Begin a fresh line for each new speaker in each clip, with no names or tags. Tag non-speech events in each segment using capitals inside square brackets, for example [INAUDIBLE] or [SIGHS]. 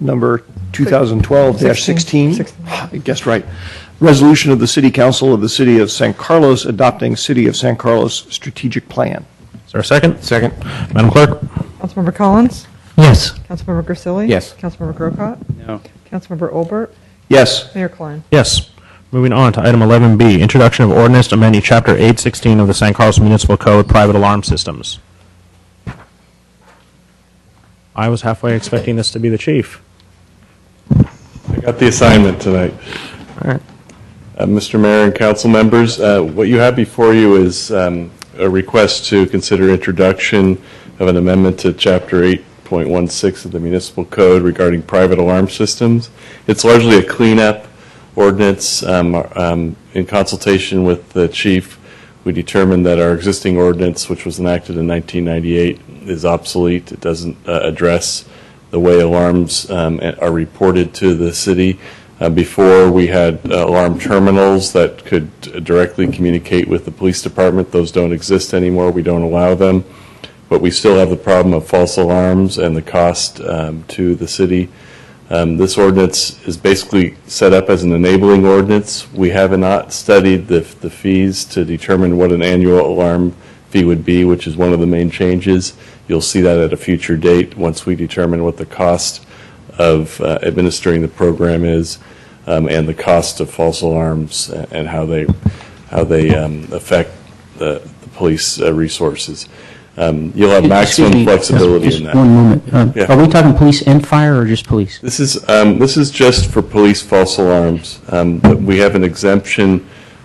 number 2012-16. [SIGHS] I guessed right. Resolution of the City Council of the City of San Carlos adopting City of San Carlos strategic plan.
Is there a second? Second. Madam Clerk?
Councilmember Collins?
Yes.
Councilmember Grisilli?
Yes.
Councilmember Grocott? No. Councilmember Olbert?
Yes.
Mayor Klein?
Yes. Moving on to item 11B, introduction of ordinance amending Chapter 816 of the San Carlos Municipal Code, private alarm systems. I was halfway expecting this to be the chief.
Got the assignment tonight. Uh, Mr. Mayor and council members, uh, what you have before you is um, a request to consider introduction of an amendment to Chapter 8.16 of the Municipal Code regarding private alarm systems. It's largely a cleanup ordinance. Um, um, In consultation with the chief, we determined that our existing ordinance, which was enacted in 1998, is obsolete. It doesn't uh, address the way alarms um, are reported to the city. Uh, Before, we had uh, alarm terminals that could directly communicate with the police department. Those don't exist anymore. We don't allow them. But we still have the problem of false alarms and the cost um, to the city. Um, This ordinance is basically set up as an enabling ordinance. We have not studied the the fees to determine what an annual alarm fee would be, which is one of the main changes. You'll see that at a future date, once we determine what the cost of uh, administering the program is, um, and the cost of false alarms a- and how they, how they um, affect the the police uh, resources. Um, You'll have maximum
Excuse me,
flexibility
just
in that.
One moment. Uh,
Yeah.
Are we talking police and fire or just police?
This is, um, this is just for police false alarms. Um, but We have an exemption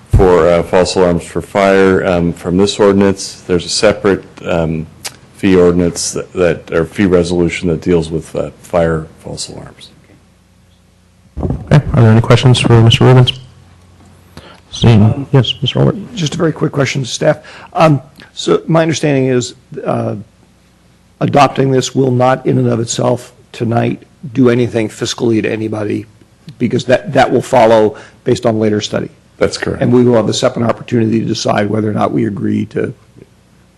for uh, false alarms for fire um, from this ordinance. There's a separate um, fee ordinance that- that, or fee resolution that deals with uh, fire false alarms.
Okay, are there any questions for Mr. Rubens? Seeing, yes, Mr. Albert?
Just a very quick question to staff. Um, So my understanding is uh, adopting this will not in and of itself tonight do anything fiscally to anybody because that, that will follow based on later study.
That's correct.
And we will have a separate opportunity to decide whether or not we agree to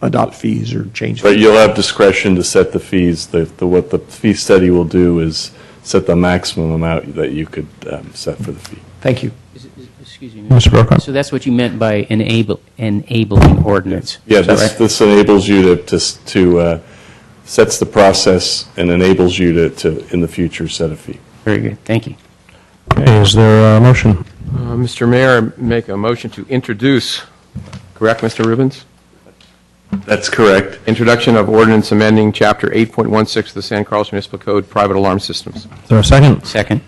adopt fees or change.
But
fees.
you'll have discretion to set the fees. The, the- what the fee study will do is set the maximum amount that you could um, set for the fee.
Thank you.
Is- is- Excuse me.
Mr. Brokaw?
So that's what you meant by enable, enabling ordinance?
Yeah,
Is that
this,
right?
this enables you to, to, s- to, uh, sets the process and enables you to, to, in the future, set a fee.
Very good, thank you.
Okay, is there a motion?
Uh, Mr. Mayor, I make a motion to introduce, correct, Mr. Rubens?
That's correct.
Introduction of ordinance amending Chapter 8.16 of the San Carlos Municipal Code, private alarm systems.
Is there a second?
Second?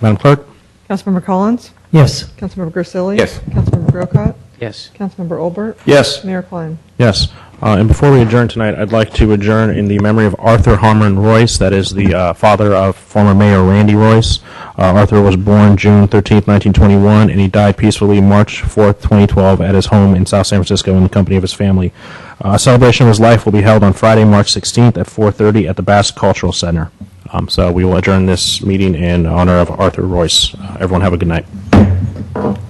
Madam Clerk?
Councilmember Collins?
Yes.
Councilmember Grisilli?
Yes.
Councilmember Grocott?
Yes.
Councilmember Olbert?
Yes.
Mayor Klein?
Yes. Uh, And before we adjourn tonight, I'd like to adjourn in the memory of Arthur Harmon Royce, that is the uh, father of former Mayor Randy Royce. Uh, Arthur was born June 13, 1921, and he died peacefully March 4, 2012, at his home in South San Francisco in the company of his family. Uh, A celebration of his life will be held on Friday, March 16th at 4:30 at the Bass Cultural Center. Um, So we will adjourn this meeting in honor of Arthur Royce. Uh, Everyone have a good night.